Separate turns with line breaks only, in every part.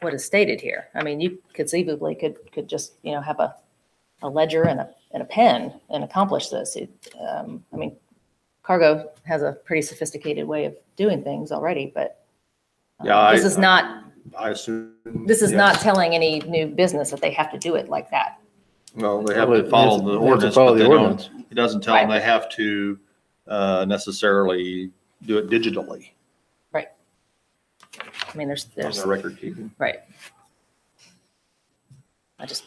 what is stated here. I mean, you conceivably could, could just, you know, have a, a ledger and a, and a pen and accomplish this. It, um, I mean, cargo has a pretty sophisticated way of doing things already, but um,
Yeah, I-
this is not,
I assume.
this is
yes.
not telling any new business that they have to do it like that.
Well, they have
Well,
to follow
they
the
have to
ordinance,
follow
but
the
they don't,
ordinance.
it doesn't tell them they have to uh, necessarily do it digitally
I mean, there's,
on
there's,
their record keeping.
right. I just,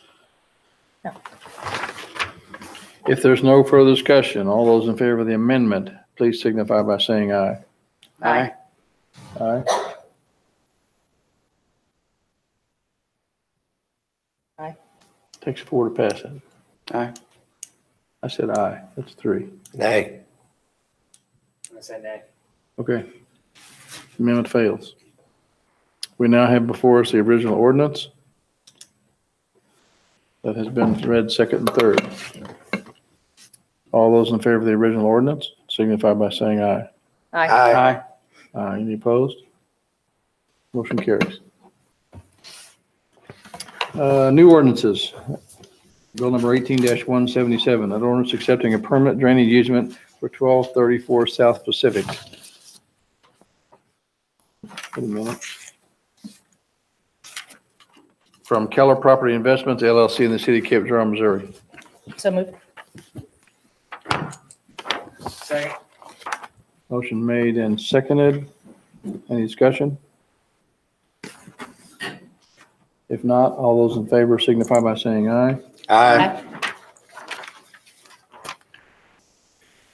If there's no further discussion, all those in favor of the amendment, please signify by saying aye.
Aye.
Aye.
Aye.
Takes four to pass it.
Aye.
I said aye. That's three.
Nay.
I say nay.
Okay. Amendment fails. We now have before us the original ordinance that has been read second and third. All those in favor of the original ordinance signify by saying aye.
I,
Aye.
Aye.
Aye. Any opposed? Motion carries. Uh, New ordinances. Bill number 18-177, an ordinance accepting a permanent drainage easement for 1234 South Pacific. Wait a minute. From Keller Property Investments LLC in the city of Cape Girardeau, Missouri.
so moved.
Second.
Motion made and seconded. Any discussion? If not, all those in favor signify by saying aye.
Aye.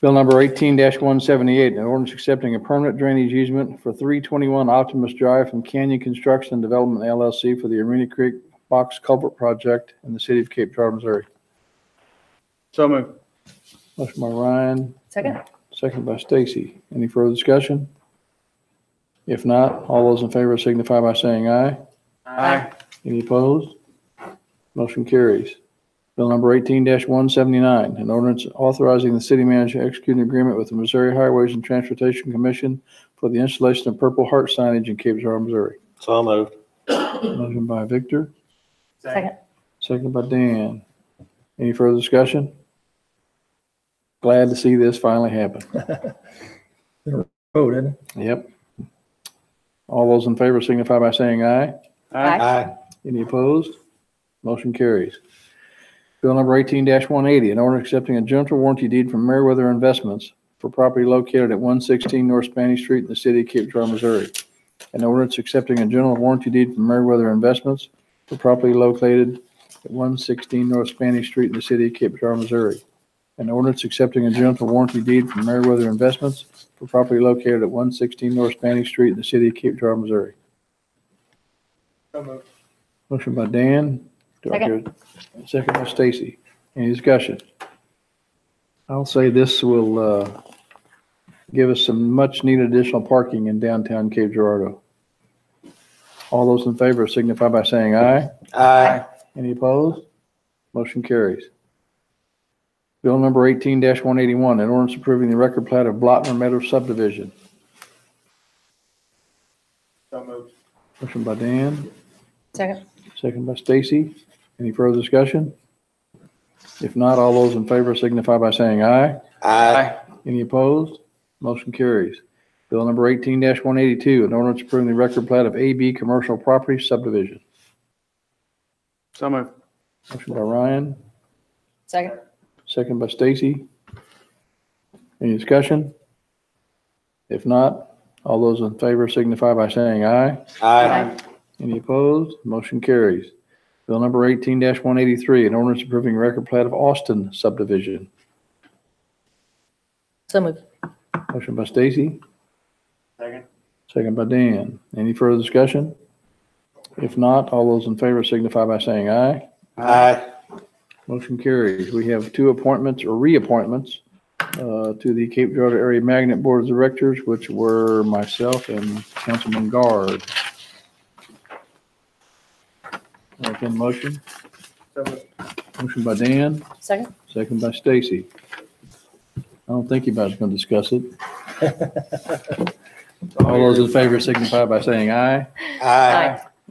Bill number eighteen one seventy-eight, an ordinance accepting a permanent drainage easement for three twenty-one Optimus Drive from Canyon Construction and Development LLC for the Arena Creek Box Culvert Project in the city of Cape Girardeau, Missouri.
So moved.
Motion by Ryan,
Second?
second by Stacy. Any further discussion? If not, all those in favor signify by saying aye.
Aye.
Any opposed? Motion carries. Bill number eighteen one seventy-nine, an ordinance authorizing the city manager to execute an agreement with the Missouri Highways and Transportation Commission for the installation of Purple Heart signage in Cape Girardeau, Missouri.
So moved.
Motion by Victor,
Second.
second by Dan. Any further discussion? Glad to see this finally happen.
vote, isn't it?
Yep. All those in favor signify by saying aye.
Aye.
Aye.
Any opposed? Motion carries. Bill number eighteen one eighty, an order accepting a general warranty deed from Meriwether Investments for property located at one sixteen North Spanish Street in the city of Cape Girardeau, Missouri. An ordinance accepting a general warranty deed from Meriwether Investments for property located at one sixteen North Spanish Street in the city of Cape Girardeau, Missouri. An ordinance accepting a general warranty deed from Meriwether Investments for property located at one sixteen North Spanish Street in the city of Cape Girardeau, Missouri.
So moved.
Motion by Dan. Do I hear- Second by Stacy. Any discussion? I'll say this will uh, give us some much-needed additional parking in downtown Cape Girardeau. All those in favor signify by saying aye.
Aye.
Any opposed? Motion carries. Bill number 18-181, an ordinance approving the record plat of Blotner Meadow subdivision.
So moved.
Motion by Dan.
Second?
Second by Stacy. Any further discussion? If not, all those in favor signify by saying aye.
Aye.
Any opposed? Motion carries. Bill number eighteen one eighty-two, an ordinance approving the record plat of AB Commercial Property Subdivision.
So moved.
Motion by Ryan,
Second?
second by Stacy. Any discussion? If not, all those in favor signify by saying aye.
Aye.
Any opposed? Motion carries. Bill number eighteen one eighty-three, an ordinance approving record plat of Austin subdivision.
So moved.
Motion by Stacy,
Second.
second by Dan. Any further discussion? If not, all those in favor signify by saying aye.
Aye.
Motion carries. We have two appointments or reappointments uh, to the Cape Girardeau Area Magnet Board of Directors, which were myself and Councilman Guard. Make a motion.
So moved.
Motion by Dan.
Second?
Second by Stacy. I don't think anybody's going to discuss it. All those in favor signify by saying aye.
Aye.